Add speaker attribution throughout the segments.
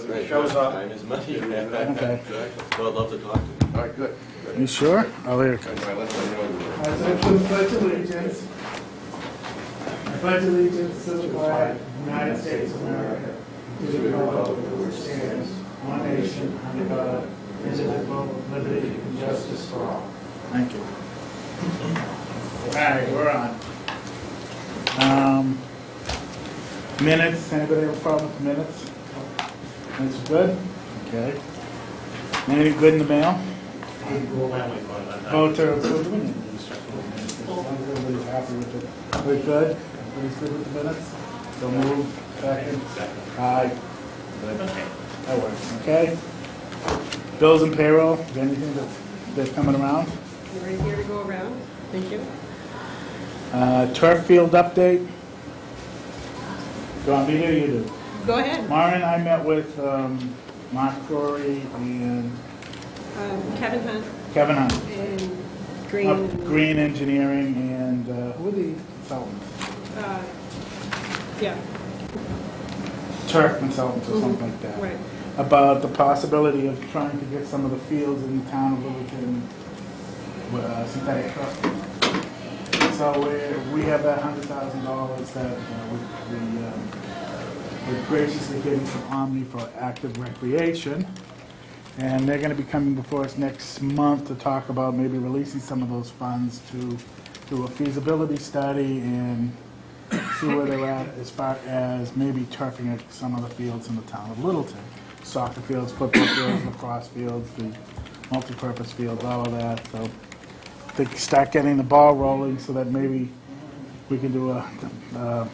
Speaker 1: Right.
Speaker 2: Shows up.
Speaker 1: Time is money.
Speaker 3: Okay.
Speaker 1: So I'd love to talk to you.
Speaker 2: All right, good.
Speaker 3: You sure? I'll hear
Speaker 2: All right, let's let you know.
Speaker 4: As I pledge allegiance, I pledge allegiance to the flag of the United States of America, to the republic which stands, one nation, under God, indivisible, with liberty and justice for all.
Speaker 3: Thank you. All right, we're on. Um, Minutes, anybody have a problem with minutes? That's good? Okay. Anything good in the mail? Oh, to approve, we need to just approve minutes. As long as everybody's happy with it. We good? Everybody's good with the minutes? So move, second? Aye. Good. That works, okay? Bills and payroll, is there anything that's, that's coming around?
Speaker 5: You're right here to go around. Thank you.
Speaker 3: Uh, Turf field update. Do you want me to, or you do?
Speaker 5: Go ahead.
Speaker 3: Mara and I met with um, Mark Corey and
Speaker 5: Um, Kevin Hunt
Speaker 3: Kevin Hunt.
Speaker 5: and
Speaker 3: of
Speaker 5: Green.
Speaker 3: Uh, Green Engineering and, uh, who are the consultants?
Speaker 5: uh, Yeah,
Speaker 3: Turf consultants or something like that.
Speaker 5: right.
Speaker 3: About the possibility of trying to get some of the fields in the town of Littleton uh, synthetic turf. So we, we have that hundred thousand dollars that uh, we, we, um, we're graciously getting from Omni for active recreation. And they're gonna be coming before us next month to talk about maybe releasing some of those funds to do a feasibility study and see where they're at as far as maybe turfing at some of the fields in the town of Littleton. Soccer fields, football fields, lacrosse fields, the multipurpose fields, all of that, so. They can start getting the ball rolling so that maybe we can do a, uh,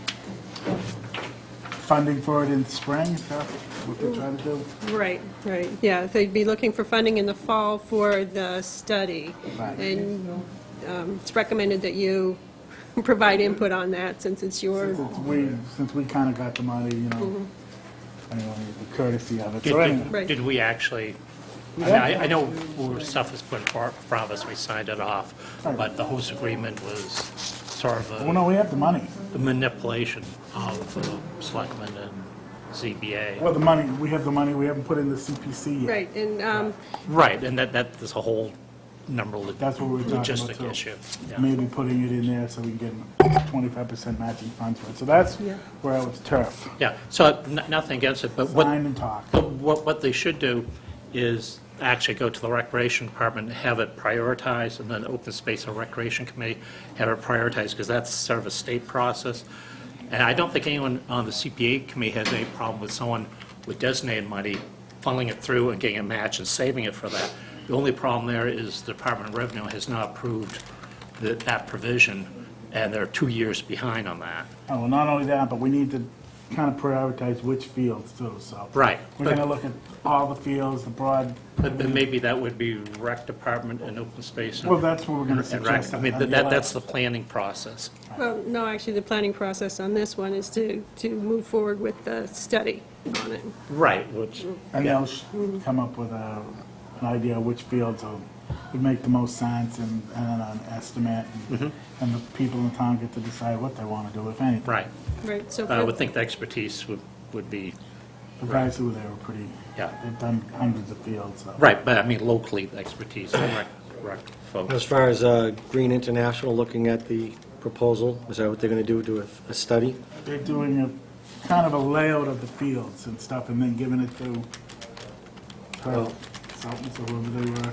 Speaker 3: funding for it in spring, is that what they're trying to do?
Speaker 5: Right, right, yeah. They'd be looking for funding in the fall for the study.
Speaker 3: Right.
Speaker 5: And um, it's recommended that you provide input on that since it's your,
Speaker 3: Since it's we, since we kinda got the money, you know, anyway, the courtesy of it,
Speaker 6: Did-
Speaker 3: so anyway.
Speaker 5: Right.
Speaker 6: Did did we actually, I mean, I I know we were- stuff was put in far- in front of us, we signed it off, but the host agreement was sort of
Speaker 3: Well, no,
Speaker 6: a
Speaker 3: we have the money,
Speaker 6: manipulation of the selectmen and ZBA.
Speaker 3: well, the money, we have the money, we haven't put in the CPC yet.
Speaker 5: right, and um,
Speaker 6: Right, and that, that is a whole number of
Speaker 3: That's what we were talking about,
Speaker 6: logistic
Speaker 3: too.
Speaker 6: issue. yeah.
Speaker 3: Maybe putting it in there so we can get twenty-five percent matching funds for it, so that's
Speaker 5: Yeah.
Speaker 3: where I was turf,
Speaker 6: Yeah, so n- nothing against it, but what...
Speaker 3: sign and talk. Oh,
Speaker 6: But what, what they should do is actually go to the Recreation Department, and have it prioritized, and then Open Space and Recreation Committee have it prioritized, because that's sort of a state process. And I don't think anyone on the CPA committee has any problem with someone with designated money funneling it through and getting a match and saving it for that. The only problem there is the Department of Revenue has not approved that, that provision, and they're two years behind on that.
Speaker 3: Oh, well, not only that, but we need to kind of prioritize which fields too, so.
Speaker 6: Right.
Speaker 3: We're gonna look at all the fields, the broad,
Speaker 6: But then maybe that would be rec department and open space. and-
Speaker 3: well, that's what we're gonna
Speaker 6: And rec,
Speaker 3: suggest.
Speaker 6: I mean,
Speaker 3: on the
Speaker 6: that, that-
Speaker 3: left.
Speaker 6: that's the planning process.
Speaker 5: well, no, actually, the planning process on this one is to, to move forward with the study on it.
Speaker 6: Right, which,
Speaker 3: And they'll sh- come up with a, an idea of which fields will- would make the most sense and, and an estimate. And and the people in town get to decide what they wanna do, if anything.
Speaker 6: Mm-hmm. right.
Speaker 5: Right, so.
Speaker 6: I
Speaker 3: Uh,
Speaker 5: for-
Speaker 6: would think the expertise would, would be,
Speaker 3: The guys who were there were pretty,
Speaker 6: Yeah.
Speaker 3: they've done hundreds of fields, so.
Speaker 6: right, but I mean locally, the expertise, and rec, rec
Speaker 7: As
Speaker 6: folks.
Speaker 7: far as uh, Green International looking at the proposal, is that what they're going to do, do a- a study?
Speaker 3: They're doing a, kind of a layout of the fields and stuff, and then giving it to her, something, so whoever they were.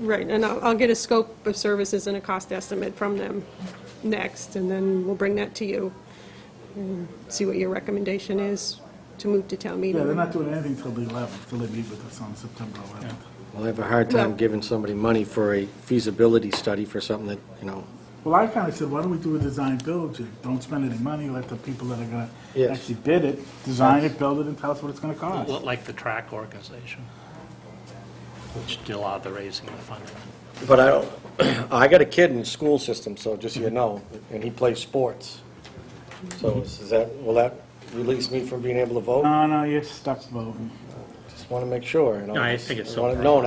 Speaker 5: Right, and I'll, I'll get a scope of services and a cost estimate from them next, and then we'll bring that to you, and see what your recommendation is to move to town
Speaker 3: Yeah, they're
Speaker 5: meeting.
Speaker 3: not doing anything till the 11th, till they meet with us on September 11th.
Speaker 7: Well, I have a hard time
Speaker 5: Well-
Speaker 7: giving somebody money for a feasibility study for something that, you know,
Speaker 3: Well, I kind of said, why don't we do a design build, You don't spend any money, let the people that are going to
Speaker 7: Yes.
Speaker 3: actually bid it, design it, build it, and tell us what it's going to cost.
Speaker 6: Like the track organization, which did a lot of the raising of the funding.
Speaker 7: but I don't, I got a kid in the school system, so just so you know, and he plays sports. So is that, will that release
Speaker 6: Uh,
Speaker 7: me from being able to vote?
Speaker 3: No, no, you're stuck voting.
Speaker 7: Just want to make sure, you know.
Speaker 6: No, I think it's so
Speaker 7: I want it known, I